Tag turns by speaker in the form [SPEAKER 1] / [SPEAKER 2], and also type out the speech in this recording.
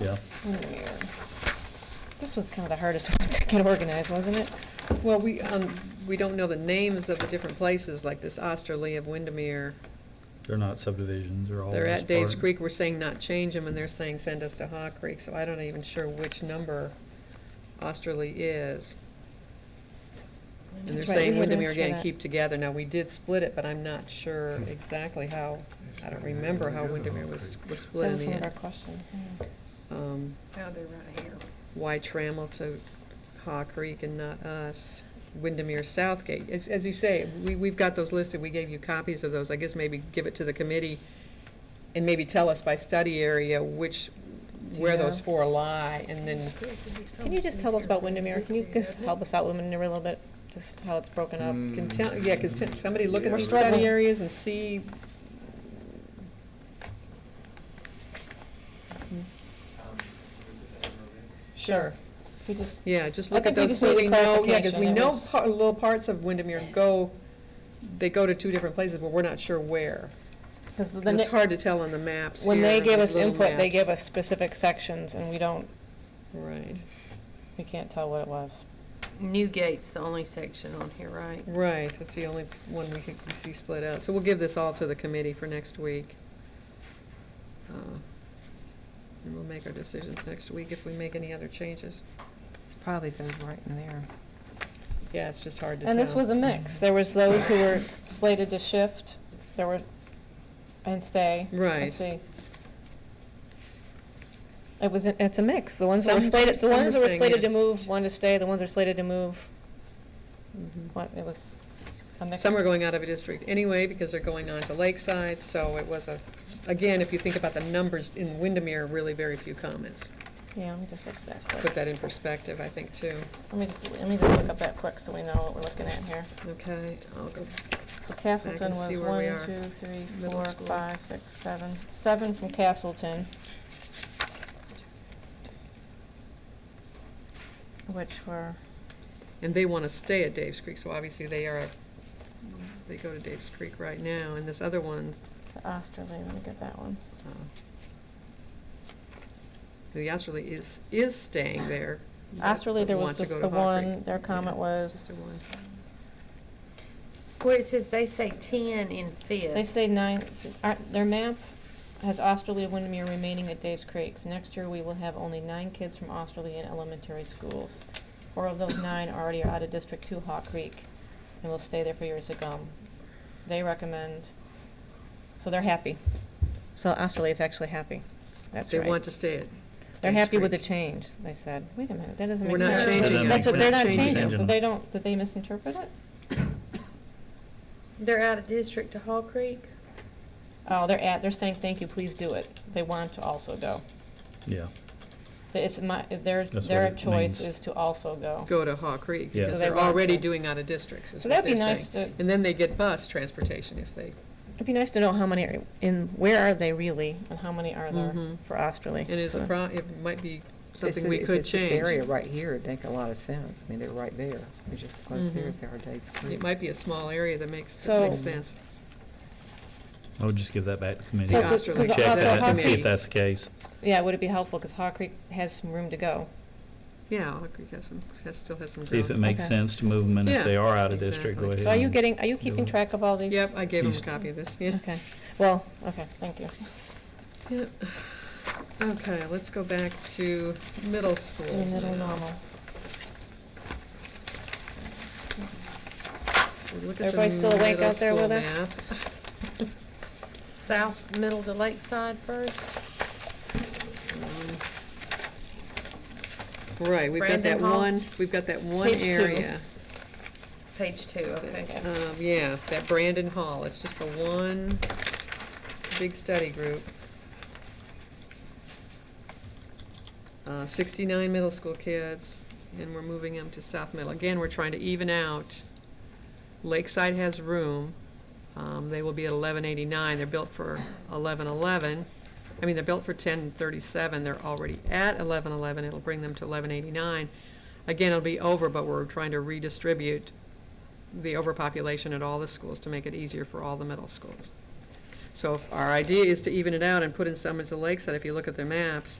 [SPEAKER 1] Yeah.
[SPEAKER 2] This was kind of the hardest one to get organized, wasn't it?
[SPEAKER 3] Well, we, um, we don't know the names of the different places, like this Osterly of Windermere.
[SPEAKER 1] They're not subdivisions, they're all.
[SPEAKER 3] They're
[SPEAKER 1] just
[SPEAKER 3] at Dave's
[SPEAKER 1] part-
[SPEAKER 3] Creek, we're saying not change them, and they're saying send us to Haw Creek, so I don't even sure which number Osterly is. And they're
[SPEAKER 2] That's right, we
[SPEAKER 3] saying
[SPEAKER 2] were
[SPEAKER 3] Windermere
[SPEAKER 2] asked for
[SPEAKER 3] again,
[SPEAKER 2] that.
[SPEAKER 3] keep together. Now, we did split it, but I'm not sure exactly how, I don't remember how Windermere was, was
[SPEAKER 2] That
[SPEAKER 3] split in
[SPEAKER 2] was
[SPEAKER 3] the
[SPEAKER 2] one of our
[SPEAKER 3] end.
[SPEAKER 2] questions.
[SPEAKER 3] Um,
[SPEAKER 4] Now they're right here.
[SPEAKER 3] why Trammell to Haw Creek and not us, Windermere Southgate. As, as you say, we, we've got those listed, we gave you copies of those, I guess maybe give it to the committee and maybe tell us by study area which, where those
[SPEAKER 2] Yeah.
[SPEAKER 3] four lie, and then,
[SPEAKER 2] Can you just tell us about Windermere? Can you just help us out with Windermere a little bit? Just how it's broken up?
[SPEAKER 3] can tell, yeah, cause t- somebody look at
[SPEAKER 5] Yeah.
[SPEAKER 3] the study areas and see. Sure.
[SPEAKER 2] We just,
[SPEAKER 3] Yeah, just
[SPEAKER 2] I
[SPEAKER 3] look at
[SPEAKER 2] think we
[SPEAKER 3] those,
[SPEAKER 2] just
[SPEAKER 3] so
[SPEAKER 2] need a
[SPEAKER 3] we know, yeah, because
[SPEAKER 2] clarification.
[SPEAKER 3] we
[SPEAKER 2] It
[SPEAKER 3] know
[SPEAKER 2] was-
[SPEAKER 3] par- little parts of Windermere go, they go to two different places, but we're not sure where.
[SPEAKER 2] because the,
[SPEAKER 3] 'Cause It's
[SPEAKER 2] ne-
[SPEAKER 3] hard to tell on the maps
[SPEAKER 2] when
[SPEAKER 3] here
[SPEAKER 2] they
[SPEAKER 3] and
[SPEAKER 2] give
[SPEAKER 3] these
[SPEAKER 2] us
[SPEAKER 3] little
[SPEAKER 2] input, they
[SPEAKER 3] maps.
[SPEAKER 2] give us specific sections and we don't,
[SPEAKER 3] Right,
[SPEAKER 2] we can't tell what it was.
[SPEAKER 4] Newgate's the only section on here, right?
[SPEAKER 3] right, that's the only one we could, we see split out, so we'll give this all to the committee for next week. Uh, And we'll make our decisions next week if we make any other changes.
[SPEAKER 6] It's probably goes right in there. Mm-hmm.
[SPEAKER 3] Yeah, it's just hard to tell.
[SPEAKER 2] And this was a mix. There was those who were slated to shift, there were, and stay.
[SPEAKER 3] Right.
[SPEAKER 2] Let's see. It was, a- it's a mix. The ones that were
[SPEAKER 3] Some-
[SPEAKER 2] slated, the
[SPEAKER 3] some
[SPEAKER 2] ones
[SPEAKER 3] were
[SPEAKER 2] that were
[SPEAKER 3] saying,
[SPEAKER 2] slated
[SPEAKER 3] yeah.
[SPEAKER 2] to move, one to stay, the ones that were slated to move,
[SPEAKER 3] Mhm.
[SPEAKER 2] one, it was a mix.
[SPEAKER 3] Some are going out of a district anyway because they're going on to Lakeside, so it was a, again, if you think about the numbers in Windermere, really very few comments.
[SPEAKER 2] Yeah, let me just look at that quick.
[SPEAKER 3] Put that in perspective, I think, too.
[SPEAKER 2] Let me just, let me just look up that quick so we know what we're looking at here.
[SPEAKER 3] Okay, I'll go,
[SPEAKER 2] So Castleton
[SPEAKER 3] see
[SPEAKER 2] was
[SPEAKER 3] where we
[SPEAKER 2] one,
[SPEAKER 3] are.
[SPEAKER 2] two, three,
[SPEAKER 3] Middle
[SPEAKER 2] four,
[SPEAKER 3] school.
[SPEAKER 2] five, six, seven. Seven from Castleton. Which were,
[SPEAKER 3] and they want to stay at Dave's Creek, so obviously they are, they go to Dave's Creek right now, and this other one,
[SPEAKER 2] the Osterly, let me get that one.
[SPEAKER 3] uh, the Osterly is, is staying there. but
[SPEAKER 2] Osterly, there was
[SPEAKER 3] want to
[SPEAKER 2] just
[SPEAKER 3] go
[SPEAKER 2] the
[SPEAKER 3] to Hawk Creek.
[SPEAKER 2] one, their comment
[SPEAKER 3] Yeah, it's just the
[SPEAKER 2] was,
[SPEAKER 3] one.
[SPEAKER 4] Where it says they say ten in fifth.
[SPEAKER 2] they stayed nine, s- our- their map has Osterly and Windermere remaining at Dave's Creek. So Next year, we will have only nine kids from Osterly in elementary schools. Four of those nine already are out of District Two Hawk Creek and will stay there for years to come. They recommend, so they're happy. So Osterly is actually happy. That's
[SPEAKER 3] They want
[SPEAKER 2] right.
[SPEAKER 3] to stay at
[SPEAKER 2] They're
[SPEAKER 3] Dave's
[SPEAKER 2] happy with the
[SPEAKER 3] Creek.
[SPEAKER 2] change, they said. Wait a minute, that doesn't
[SPEAKER 3] We're
[SPEAKER 2] make
[SPEAKER 3] not
[SPEAKER 2] sense.
[SPEAKER 3] changing
[SPEAKER 1] it.
[SPEAKER 2] That's what,
[SPEAKER 1] We're
[SPEAKER 2] they're
[SPEAKER 1] not
[SPEAKER 2] not
[SPEAKER 1] changing
[SPEAKER 2] changing,
[SPEAKER 1] it.
[SPEAKER 2] so they don't, did they misinterpret it?
[SPEAKER 4] They're out of district to Hall Creek?
[SPEAKER 2] Oh, they're at, they're saying, thank you, please do it. They want to also go.
[SPEAKER 1] Yeah,
[SPEAKER 2] Th- It's my, their,
[SPEAKER 1] That's what
[SPEAKER 2] their
[SPEAKER 1] it
[SPEAKER 2] choice
[SPEAKER 1] means.
[SPEAKER 2] is to also go.
[SPEAKER 3] go to Haw Creek,
[SPEAKER 1] Yeah.
[SPEAKER 3] because
[SPEAKER 2] So they
[SPEAKER 3] they're
[SPEAKER 2] want
[SPEAKER 3] already
[SPEAKER 2] to.
[SPEAKER 3] doing out of districts, is
[SPEAKER 2] So
[SPEAKER 3] what
[SPEAKER 2] that'd
[SPEAKER 3] they're
[SPEAKER 2] be nice
[SPEAKER 3] saying.
[SPEAKER 2] to,
[SPEAKER 3] And then they get bus transportation if they,
[SPEAKER 2] it'd be nice to know how many, are in, where are they really, and how many are there
[SPEAKER 3] Mhm.
[SPEAKER 2] for Osterly.
[SPEAKER 3] and it's a
[SPEAKER 2] So-
[SPEAKER 3] pro, it might be something
[SPEAKER 6] This
[SPEAKER 3] we
[SPEAKER 6] is-
[SPEAKER 3] could
[SPEAKER 6] this- This area
[SPEAKER 3] change.
[SPEAKER 6] right here would make a lot of sense. I mean, they're right there. They're just close there,
[SPEAKER 3] Mhm.
[SPEAKER 6] it's our day's
[SPEAKER 3] It
[SPEAKER 6] creek.
[SPEAKER 3] might be a small area that makes, that makes
[SPEAKER 2] So-
[SPEAKER 3] sense.
[SPEAKER 1] I would just give that back to committee.
[SPEAKER 2] So,
[SPEAKER 3] The
[SPEAKER 2] cause-
[SPEAKER 3] Osterly
[SPEAKER 2] cause
[SPEAKER 1] Check
[SPEAKER 3] Check
[SPEAKER 2] also
[SPEAKER 1] that
[SPEAKER 3] how
[SPEAKER 1] and
[SPEAKER 2] Hawk
[SPEAKER 1] see
[SPEAKER 3] many-
[SPEAKER 1] if
[SPEAKER 2] Creek,
[SPEAKER 1] that's the case.
[SPEAKER 2] yeah, would it be helpful, cause Hawk Creek has some room to go.
[SPEAKER 3] Yeah, Haw Creek has some, has, still has some
[SPEAKER 1] See if it
[SPEAKER 3] ground.
[SPEAKER 1] makes
[SPEAKER 2] Okay.
[SPEAKER 1] sense to move them, and
[SPEAKER 3] Yeah,
[SPEAKER 1] if they are out of district, go ahead.
[SPEAKER 3] exactly.
[SPEAKER 2] So are you
[SPEAKER 1] and-
[SPEAKER 2] getting, are you keeping
[SPEAKER 1] Oh, Yeah.
[SPEAKER 2] track of all these?
[SPEAKER 3] Yep, I gave him a
[SPEAKER 1] East.
[SPEAKER 3] copy of this, yeah.
[SPEAKER 2] Okay, well, okay, thank you.
[SPEAKER 3] Yep. Okay, let's go back to middle schools.
[SPEAKER 2] Do middle
[SPEAKER 3] now.
[SPEAKER 2] normal.
[SPEAKER 3] We'll look at the
[SPEAKER 2] Everybody still awake
[SPEAKER 3] middle
[SPEAKER 2] out there
[SPEAKER 3] school
[SPEAKER 2] with us?
[SPEAKER 3] map.
[SPEAKER 4] South, middle to Lakeside first?
[SPEAKER 3] Right, we've got that
[SPEAKER 4] Brandon Hall?
[SPEAKER 3] one, we've got that one
[SPEAKER 2] Page two.
[SPEAKER 3] area.
[SPEAKER 4] Page two, okay.
[SPEAKER 3] Um, yeah, that Brandon Hall, it's just the one big study group. Uh, sixty-nine middle school kids, and we're moving them to South Middle. Again, we're trying to even out. Lakeside has room, um, they will be at eleven eighty-nine, they're built for eleven eleven. I mean, they're built for ten thirty-seven, they're already at eleven eleven, it'll bring them to eleven eighty-nine. Again, it'll be over, but we're trying to redistribute the overpopulation at all the schools to make it easier for all the middle schools. So if our idea is to even it out and put in some into Lakeside, if you look at their maps,